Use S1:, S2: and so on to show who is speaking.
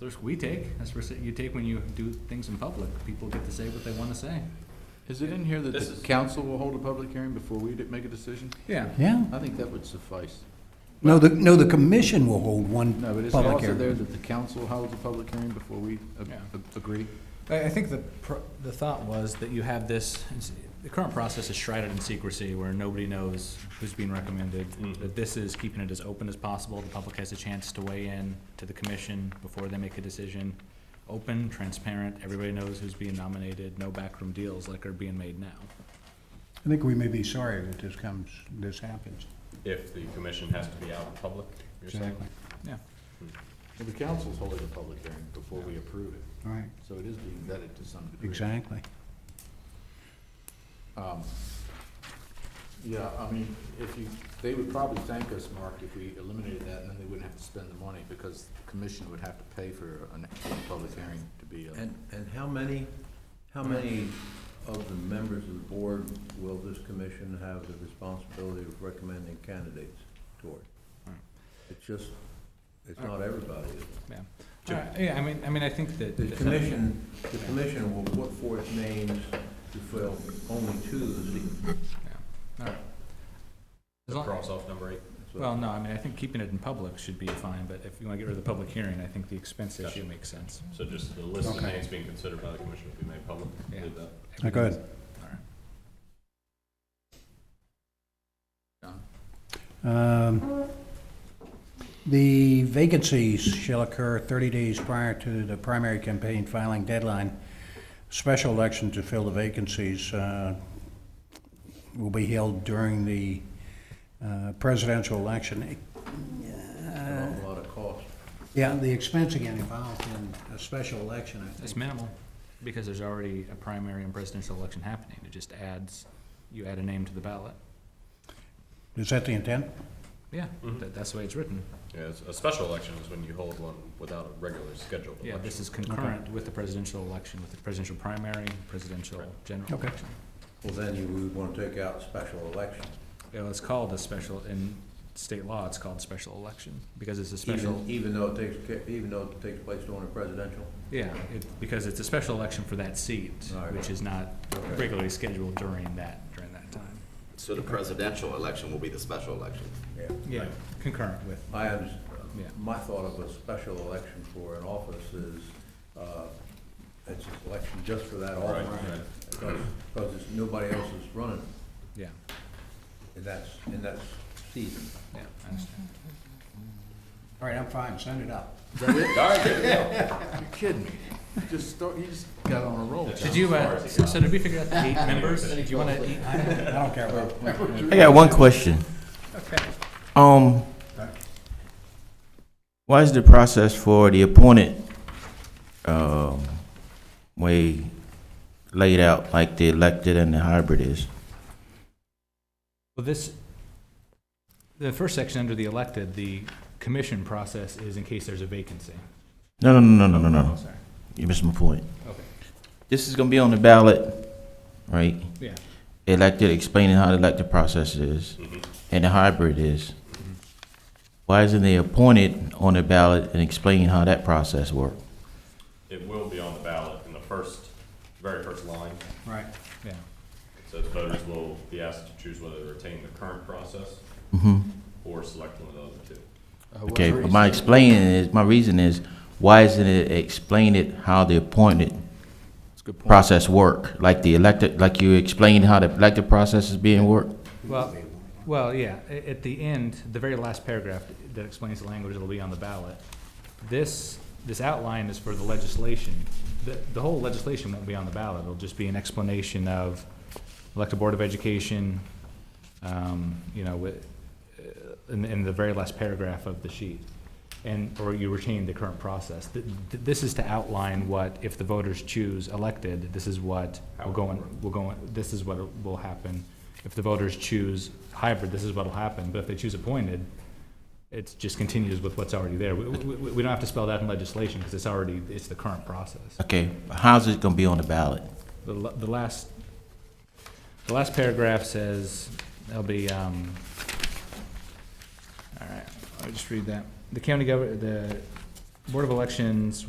S1: the risk we take. That's the risk that you take when you do things in public. People get to say what they want to say.
S2: Is it in here that
S3: This
S2: the
S3: is-
S2: council will hold a public hearing before we d- make a decision?
S1: Yeah.
S4: Yeah.
S2: I think that would suffice.
S4: No, the, no, the commission will hold one
S2: No, but it's
S4: public
S2: also there
S4: hearing.
S2: that the council holds a public hearing before we a-
S1: Yeah.
S2: a- agree.
S1: I, I think the, pro- the thought was that you have this, the current process is shrouded in secrecy where nobody knows who's being recommended.
S3: Mhm.
S1: That this is keeping it as open as possible. The public has a chance to weigh in to the commission before they make a decision. Open, transparent, everybody knows who's being nominated, no backroom deals like are being made now.
S4: I think we may be sorry that this comes, this happens.
S3: If the commission has to be out in public, you're saying?
S4: Exactly.
S1: Yeah.
S2: Well, The council's holding a public hearing before we approve it,
S4: All right,
S2: so it is being vetted to some degree.
S4: exactly.
S2: Um, Yeah, I mean, if you, they would probably thank us, Mark, if we eliminated that, and then they wouldn't have to spend the money, because the commission would have to pay for an a public hearing to be. a-
S5: And, and how many, how many of the members of the board will this commission have the responsibility of recommending candidates toward? It's just, it's not everybody. is it?
S1: Yeah. All right, Yeah, I mean, I mean, I think that.
S5: The commission, the commission will put forth names to fill only two of the seats.
S1: All right. As long-
S3: Cross off number eight.
S5: So-
S1: Well, no, I mean, I think keeping it in public should be fine, but if you want to get rid of the public hearing, I think the expense issue makes sense.
S3: So just the list of
S4: Okay.
S3: names being considered by the commission will be made public.
S1: Yeah.
S3: Leave that.
S4: Good.
S1: All right.
S4: Um, The vacancies shall occur 30 days prior to the primary campaign filing deadline. Special election to fill the vacancies uh, will be held during the uh, presidential election.
S2: Uh.
S5: An awful lot of cost.
S4: Yeah, the expense again involved in a special election, I
S1: It's
S4: think.
S1: minimal, because there's already a primary and presidential election happening. It just adds, you add a name to the ballot.
S4: Is that the intent?
S1: Yeah,
S3: Mhm.
S1: Mm-hmm. that, that's the way it's written.
S3: Yeah, it's- a special election is when you hold one without a regular scheduled
S1: Yeah,
S3: election.
S1: this is concurrent with the presidential election, with the presidential primary, presidential
S3: Right.
S1: general
S4: Okay.
S1: election.
S5: Well, then you would want to take out special election.
S1: It was called a special, in state law, it's called special election, because it's a special,
S5: Even, even though it takes, ca- even though it takes place during a presidential.
S1: yeah, it, because it's a special election for that seat,
S5: Alright.
S1: which is not
S5: Okay.
S1: regularly scheduled during that, during that time.
S6: So the presidential election will be the special election.
S5: Yeah.
S1: Yeah, concurrent with.
S5: I have,
S1: Yeah.
S5: my thought of a special election for an office is, uh, it's an election just for that
S3: Right,
S5: office.
S3: right.
S5: Because, because it's- nobody else is running
S1: Yeah,
S5: in that, in that seat.
S1: yeah, I understand.
S4: All right, I'm fine, send it up.
S3: All right, there we go.
S2: You're kidding me. You Just start, you just got on a roll.
S1: Did you, uh, so so did we figure out the eight members? Do you want to?
S4: I don't I don't care about
S7: I got one question.
S1: Okay.
S7: Um, what is the process for the appointed, um, way laid out like the elected and the hybrid is?
S1: Well, this, the first section under the elected, the commission process is in case there's a vacancy.
S7: No, no, no, no, no, no,
S1: Oh,
S7: no.
S1: Sorry.
S7: You missed my point.
S1: Okay.
S7: This is gonna be on the ballot, right?
S1: Yeah.
S7: Elected, explaining how the elected process is and the hybrid is. Why isn't the appointed on the ballot and explaining how that process works?
S3: It will be on the ballot in the first, very first line.
S4: Right.
S1: Yeah.
S3: So the voters will be asked to choose whether to retain the current process or select one of the other two.
S7: Okay, but my explaining is, my reason is, why isn't it explain it how the appointed process work? Like the elected, like you explained how the elected process is being worked?
S1: Well, well, yeah, a- at the end, the very last paragraph that explains the language that'll be on the ballot, this, this outline is for the legislation. The, the whole legislation won't be on the ballot, it'll just be an explanation of elected Board of Education, um, you know, with, uh, in, in the very last paragraph of the sheet. And, or you retain the current process. Th- th- This is to outline what, if the voters choose elected, this is what will go, in- will go, in- this is what will happen. If the voters choose hybrid, this is what'll happen, but if they choose appointed, it just continues with what's already there. We, we, we we don't have to spell that in legislation, because it's already, it's the current process.
S7: Okay, how's it gonna be on the ballot?
S1: The, la- the last, the last paragraph says, there'll be, um, all right, I'll just read that. The county governor, the Board of Elections